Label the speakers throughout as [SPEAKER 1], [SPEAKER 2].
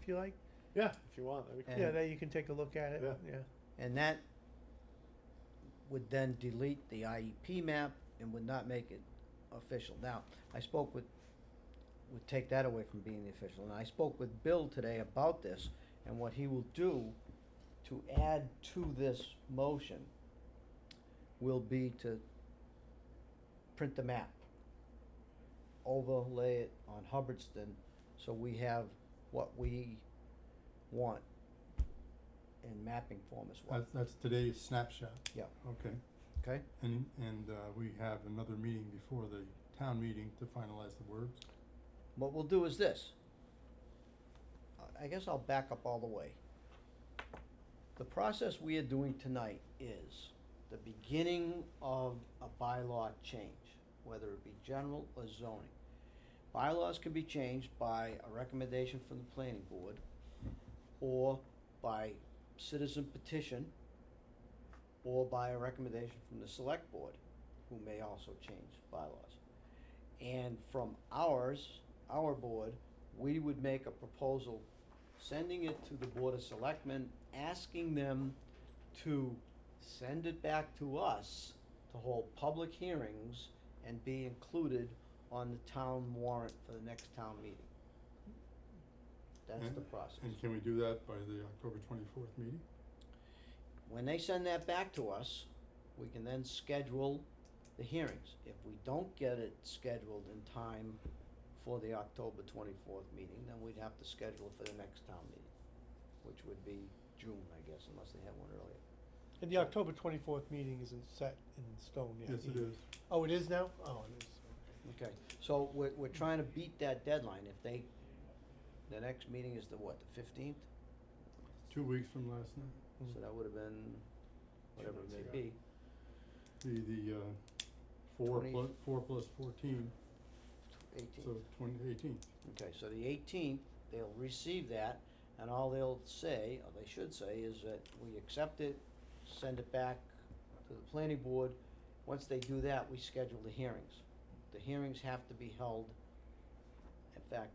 [SPEAKER 1] if you like,
[SPEAKER 2] Yeah, if you want. that'd be
[SPEAKER 1] yeah,
[SPEAKER 2] cool.
[SPEAKER 3] And-
[SPEAKER 1] that you can take a look at it,
[SPEAKER 2] Yeah.
[SPEAKER 1] yeah.
[SPEAKER 3] And that would then delete the IEP map and would not make it official. Now, I spoke with, would take that away from being the official, and I spoke with Bill today about this and what he will do to add to this motion will be to print the map, overlay it on Hubbardston, so we have what we want in mapping form as well,
[SPEAKER 4] That's, that's today's snapshot.
[SPEAKER 3] Yeah.
[SPEAKER 4] Okay,
[SPEAKER 3] okay?
[SPEAKER 4] and, and, uh, we have another meeting before the town meeting to finalize the words.
[SPEAKER 3] What we'll do is this. I- I guess I'll back up all the way. The process we are doing tonight is the beginning of a bylaw change, whether it be general or zoning. Bylaws can be changed by a recommendation from the planning board or by citizen petition or by a recommendation from the select board, who may also change bylaws. And from ours, our board, we would make a proposal, sending it to the Board of Selectmen, asking them to send it back to us to hold public hearings and be included on the town warrant for the next town meeting. That's the process.
[SPEAKER 4] And can we do that by the October twenty-fourth meeting?
[SPEAKER 3] When they send that back to us, we can then schedule the hearings. If we don't get it scheduled in time for the October twenty-fourth meeting, then we'd have to schedule it for the next town meeting, which would be June, I guess, unless they have one earlier.
[SPEAKER 1] And the October twenty-fourth meeting isn't set in stone yet.
[SPEAKER 4] Yes, it
[SPEAKER 1] either.
[SPEAKER 4] is.
[SPEAKER 1] Oh, it is now? Oh, it is.
[SPEAKER 3] Okay, so we're, we're trying to beat that deadline. If they, the next meeting is the what, the fifteenth?
[SPEAKER 4] Two weeks from last night.
[SPEAKER 3] So that would have been, whatever it
[SPEAKER 2] months
[SPEAKER 3] may
[SPEAKER 2] ago.
[SPEAKER 3] be.
[SPEAKER 4] The, the, uh, four
[SPEAKER 3] Twenty-
[SPEAKER 4] plus, four plus fourteen,
[SPEAKER 3] Eighteenth.
[SPEAKER 4] so twenty, eighteenth.
[SPEAKER 3] Okay, so the eighteenth, they'll receive that, and all they'll say, or they should say, is that we accept it, send it back to the planning board. Once they do that, we schedule the hearings. The hearings have to be held, in fact,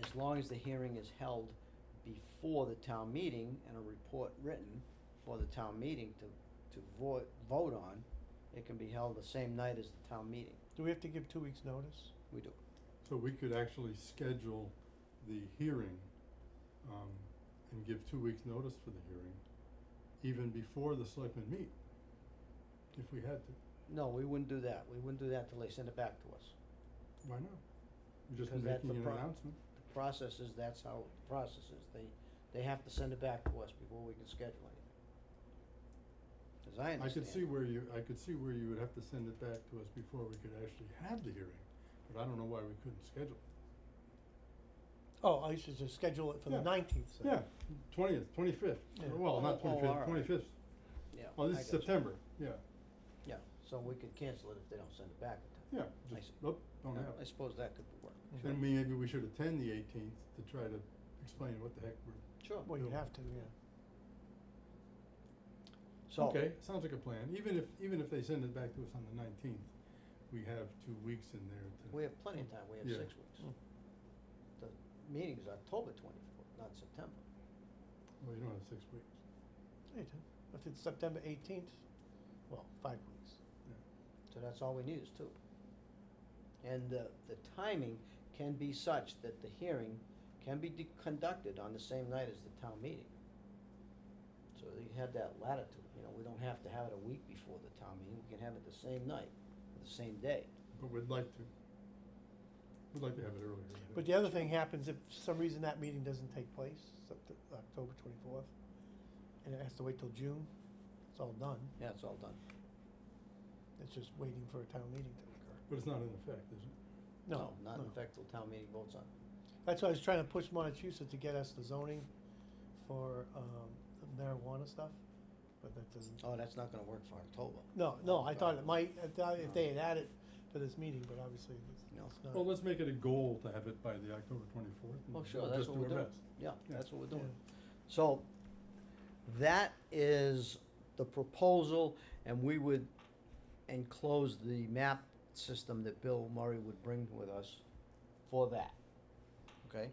[SPEAKER 3] as long as the hearing is held before the town meeting and a report written for the town meeting to, to vote, vote on, it can be held the same night as the town meeting.
[SPEAKER 1] Do we have to give two weeks' notice?
[SPEAKER 3] We do,
[SPEAKER 4] So we could actually schedule the hearing, um, and give two weeks' notice for the hearing, even before the selectmen meet, if we had to.
[SPEAKER 3] No, we wouldn't do that. We wouldn't do that till they send it back to us.
[SPEAKER 4] Why not? You're just
[SPEAKER 3] Because that's
[SPEAKER 4] making
[SPEAKER 3] the
[SPEAKER 4] an
[SPEAKER 3] pro-
[SPEAKER 4] announcement.
[SPEAKER 3] The process is, that's how the process is. They, they have to send it back to us before we can schedule anything. As I
[SPEAKER 4] I
[SPEAKER 3] understand.
[SPEAKER 4] could see
[SPEAKER 3] it.
[SPEAKER 4] where you, I could see where you would have to send it back to us before we could actually have the hearing, but I don't know why we couldn't schedule. it.
[SPEAKER 1] Oh, I should just schedule it for the
[SPEAKER 4] Yeah.
[SPEAKER 1] nineteenth,
[SPEAKER 4] Yeah, twentieth, twenty-fifth,
[SPEAKER 1] Yeah.
[SPEAKER 4] well,
[SPEAKER 3] Oh, oh,
[SPEAKER 4] not twenty-fifth,
[SPEAKER 3] alright.
[SPEAKER 4] twenty-fifth,
[SPEAKER 3] Yeah.
[SPEAKER 4] oh,
[SPEAKER 3] I
[SPEAKER 4] this is
[SPEAKER 3] got you.
[SPEAKER 4] September, yeah,
[SPEAKER 3] Yeah, so we could cancel it if they don't send it back in
[SPEAKER 4] yeah,
[SPEAKER 3] time. I
[SPEAKER 4] just,
[SPEAKER 3] see.
[SPEAKER 4] nope, don't have
[SPEAKER 3] I
[SPEAKER 4] it.
[SPEAKER 3] suppose that could work.
[SPEAKER 1] Sure.
[SPEAKER 4] Then we- maybe we should attend the eighteenth to try to explain what the heck we're,
[SPEAKER 3] Sure.
[SPEAKER 1] Well, you'd have to, yeah.
[SPEAKER 3] So.
[SPEAKER 4] okay, sounds like a plan, even if, even if they send it back to us on the nineteenth, we have two weeks in there to.
[SPEAKER 3] We have plenty of time, we have
[SPEAKER 4] Yeah.
[SPEAKER 3] six weeks.
[SPEAKER 1] Mm.
[SPEAKER 3] The meeting is October twenty-fourth, not September.
[SPEAKER 4] Well, you don't have six weeks,
[SPEAKER 1] Hey, Tim, If it's September eighteenth, well, five weeks.
[SPEAKER 3] So that's all we need is two. And the, the timing can be such that the hearing can be de- conducted on the same night as the town meeting. So you have that latitude, you know, we don't have to have it a week before the town meeting, we can have it the same night, the same day.
[SPEAKER 4] but we'd like to, we'd like to have it earlier. I think.
[SPEAKER 1] But the other thing happens if for some reason that meeting doesn't take place, Sept- October twenty-fourth, and it has to wait till June, it's all done.
[SPEAKER 3] Yeah, it's all done.
[SPEAKER 1] It's just waiting for a town meeting to occur.
[SPEAKER 4] But it's not in effect, is it?
[SPEAKER 1] No,
[SPEAKER 3] Not
[SPEAKER 1] no.
[SPEAKER 3] in fact till town meeting votes on. it.
[SPEAKER 1] That's why I was trying to push Montechusett to get us the zoning for, um, the marijuana stuff, but that doesn't.
[SPEAKER 3] Oh, that's not gonna work for October.
[SPEAKER 1] No, no, I thought
[SPEAKER 3] Uh,
[SPEAKER 1] it might, I thought if they had added to this meeting, but obviously it's,
[SPEAKER 3] No.
[SPEAKER 1] it's not.
[SPEAKER 4] Well, let's make it a goal to have it by the October twenty-fourth.
[SPEAKER 3] Oh, sure, that's what we're doing. Yeah,
[SPEAKER 4] Yeah.
[SPEAKER 3] that's what we're doing.
[SPEAKER 1] Yeah.
[SPEAKER 3] So that is the proposal, and we would enclose the map system that Bill Murray would bring with us for that.